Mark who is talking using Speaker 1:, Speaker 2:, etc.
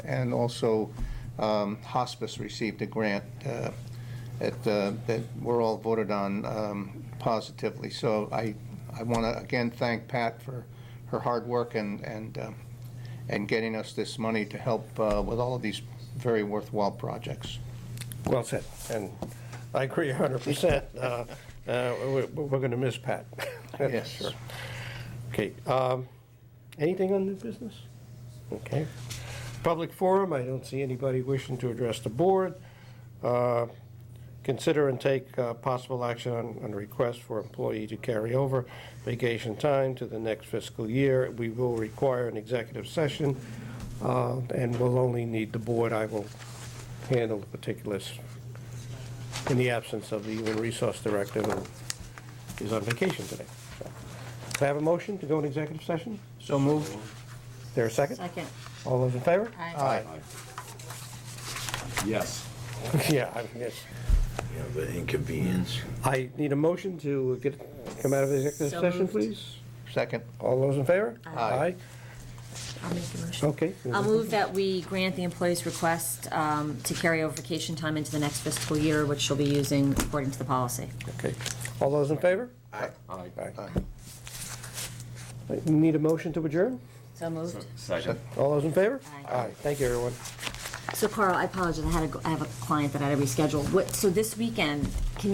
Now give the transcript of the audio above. Speaker 1: and also um, hospice received a grant uh, that, uh, that were all voted on um, positively. So I, I want to again thank Pat for her hard work and, and, um, and getting us this money to help uh, with all of these very worthwhile projects.
Speaker 2: Well said, and I agree 100%. Uh, uh, we- We're going to miss Pat.
Speaker 1: Yes.
Speaker 2: Sure. Okay, um, anything on new business? Okay. Public forum, I don't see anybody wishing to address the board. Uh, Consider and take uh, possible action on on a request for employee to carry over vacation time to the next fiscal year. We will require an executive session, uh, and we'll only need the board. I will handle the particulars in the absence of the Human Resource Director who is on vacation today. So, Can I have a motion to go in executive session?
Speaker 1: So moved.
Speaker 2: Is there a second?
Speaker 3: Second.
Speaker 2: All those in favor?
Speaker 3: Aye.
Speaker 4: Yes.
Speaker 2: Yeah, I mean, yes.
Speaker 4: Yeah, the inconvenience.
Speaker 2: I need a motion to get, come out of executive
Speaker 3: So
Speaker 2: session,
Speaker 3: moved.
Speaker 2: please.
Speaker 1: Second.
Speaker 2: All those in favor?
Speaker 1: Aye.
Speaker 3: I'll make the motion.
Speaker 2: Okay.
Speaker 3: I'll move that we grant the employee's request um, to carry over vacation time into the next fiscal year, which she'll be using according to the policy.
Speaker 2: Okay. All those in favor?
Speaker 4: Aye.
Speaker 2: Aye.
Speaker 1: Aye.
Speaker 2: Need a motion to adjourn?
Speaker 3: So moved.
Speaker 4: Second.
Speaker 2: All those in favor?
Speaker 3: Aye.
Speaker 2: Aye. Thank you, everyone.
Speaker 3: So Carl, I apologize, I had, a- I have a client that I had to reschedule. What, so this weekend, can